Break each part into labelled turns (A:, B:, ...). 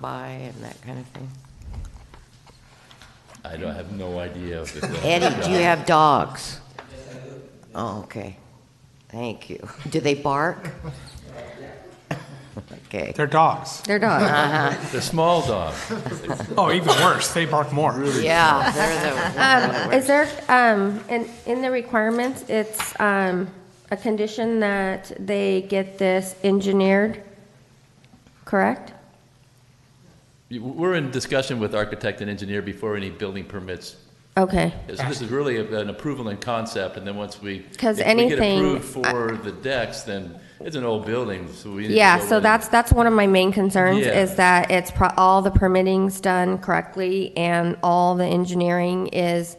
A: by and that kind of thing?
B: I don't, I have no idea if it's.
A: Eddie, do you have dogs? Oh, okay. Thank you. Do they bark? Okay.
C: They're dogs.
A: They're
B: Ah,
A: dogs.
B: The small dog.
C: Oh, even worse, they bark more.
A: Yeah, they're the.
D: Is there, um, in, in the requirements, it's, um, a condition that they get this engineered, correct?
B: You- We're in discussion with architect and engineer before any building permits.
D: Okay,
B: So this is really a- an approval in concept, and then once we.
D: 'Cause
B: If
D: anything-
B: we get approved for the decks, then it's an old building, so we. need to
D: yeah,
B: go
D: so
B: in.
D: that's, that's one of my main concerns,
B: Yeah.
D: is that it's pro, all the permitting's done correctly, and all the engineering is,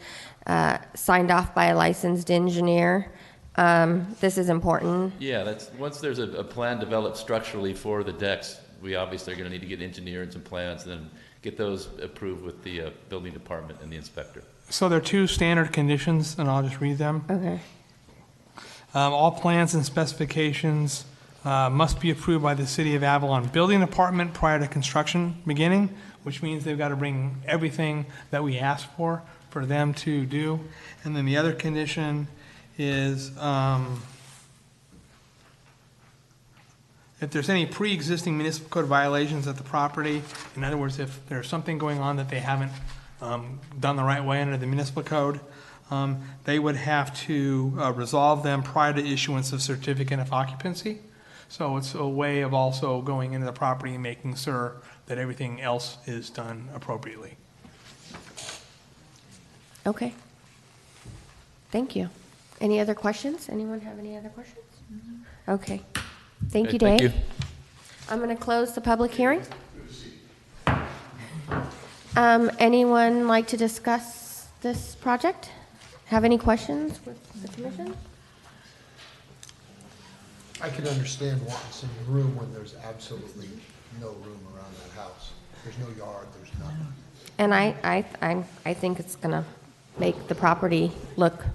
D: uh, signed off by a licensed engineer. Um, this is important,
B: Yeah, that's, once there's a, a plan developed structurally for the decks, we obviously are gonna need to get engineer and some plans, then get those approved with the, uh, building department and the inspector.
C: So there are two standard conditions, and I'll just read them.
D: okay.
C: Um, All plans and specifications uh, must be approved by the City of Avalon Building Department prior to construction beginning, which means they've got to bring everything that we ask for, for them to do. And then the other condition is um, if there's any pre-existing municipal code violations at the property, in other words, if there's something going on that they haven't um, done the right way under the municipal code, um, they would have to uh, resolve them prior to issuance of certificate of occupancy. So it's a way of also going into the property and making sure that everything else is done appropriately.
D: Okay. Thank you. Any other questions? Anyone have any other questions? Okay. Thank
B: Okay,
D: you,
B: thank
D: Dave. I'm going to close the public hearing. Um, Anyone like to discuss this project? Have any questions with the commission?
E: I can understand wanting some room when there's absolutely no room around that house. There's no yard, there's nothing.
D: And I, I, I'm- I think it's going to make the property look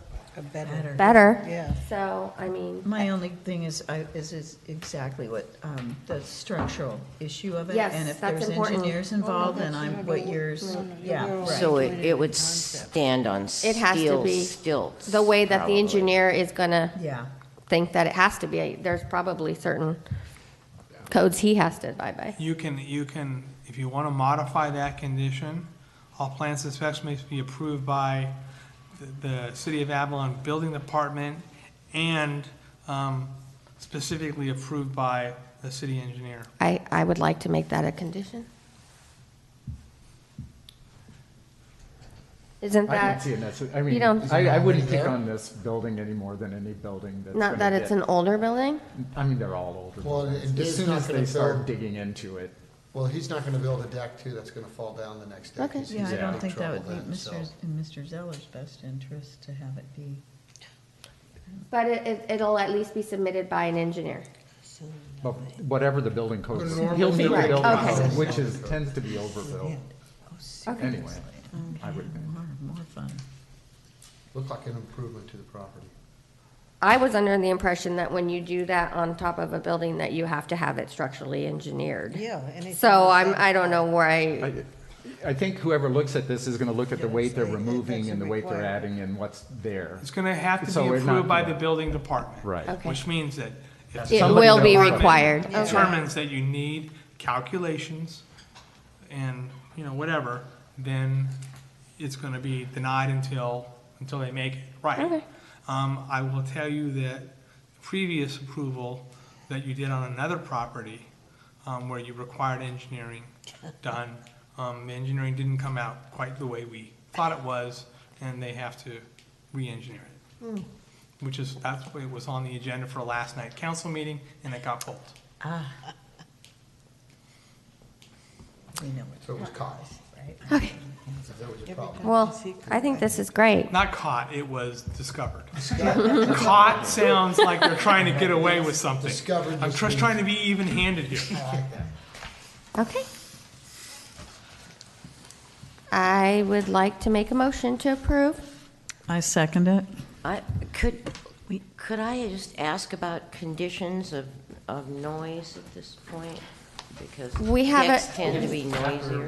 F: Better.
D: better.
F: Yeah.
D: So, I mean,
F: My only thing is, I- is is exactly what, um, the structural issue of it.
D: Yes,
F: And if
D: that's
F: there's
D: important.
F: engineers involved, then I'm, what yours, yeah,
A: So
F: right.
A: it, it would stand on steel
D: It has to be
A: stilts.
D: the way that the
A: probably.
D: engineer is going to
F: Yeah,
D: think that it has to be. There's probably certain codes he has to abide by.
C: You can, you can, if you want to modify that condition, all plans and specs must be approved by the- the City of Avalon Building Department and um, specifically approved by the city engineer.
D: I, I would like to make that a condition. Isn't
G: I can
D: that,
G: see it, that's, I mean,
D: don't-
G: I, I wouldn't pick on this building any more than any building that's.
D: not
G: gonna
D: that it's
G: get-
D: an older building?
G: I mean, they're all older
E: Well,
G: buildings.
E: and Dave's
G: As soon
E: not
G: as
E: gonna
G: they start
E: build-
G: digging into it,
E: Well, he's not gonna build a deck too, that's gonna fall down the next day.
D: Okay.
E: He's
F: yeah, I
E: in
F: don't
E: big
F: think that would
E: trouble
F: be
E: then, so-
F: Mr. in Mr. Zeller's best interest to have it be.
D: But it- it, it'll at least be submitted by an engineer.
G: but whatever the building code,
E: The normal
G: he'll meet the
D: Right,
G: building
D: okay.
G: code, which is, tends to be overbuilt. Anyway, I
F: Okay,
G: would think.
F: More, more fun.
E: Looked like an improvement to the property.
D: I was under the impression that when you do that on top of a building, that you have to have it structurally engineered.
H: Yeah, anything
D: So
H: like
D: I'm,
H: that.
D: I don't know where I,
G: I, I think whoever looks at this is gonna look at the weight they're
H: Yeah, that's-
G: removing
H: that's
G: and the weight they're
H: required.
G: adding and what's there.
C: It's going to have to
G: So
C: be
G: we're not
C: approved by
G: gonna-
C: the building department.
G: Right.
D: Okay.
C: Which means that if
D: it
G: somebody
D: will be
G: that-
D: required.
C: somebody determines that you need calculations and, you know, whatever, then it's going to be denied until, until they make it right.
D: Okay.
C: Um, I will tell you that previous approval that you did on another property, um, where you required engineering done, um, the engineering didn't come out quite the way we thought it was, and they have to re-engineer it. Which is, that's what was on the agenda for last night's council meeting, and it got pulled.
F: We know it.
E: So it was caught. Okay. That was a problem.
D: Well, I think this is great.
C: Not caught, it was discovered. Caught sounds like they're trying to get away with something.
E: Discovered
C: I'm
E: just
C: just
E: means-
C: trying to be even-handed here.
D: Okay. I would like to make a motion to approve.
F: I second it.
A: I, could, could I just ask about conditions of, of noise at this point? because
D: We have a-
A: decks tend to be noisier.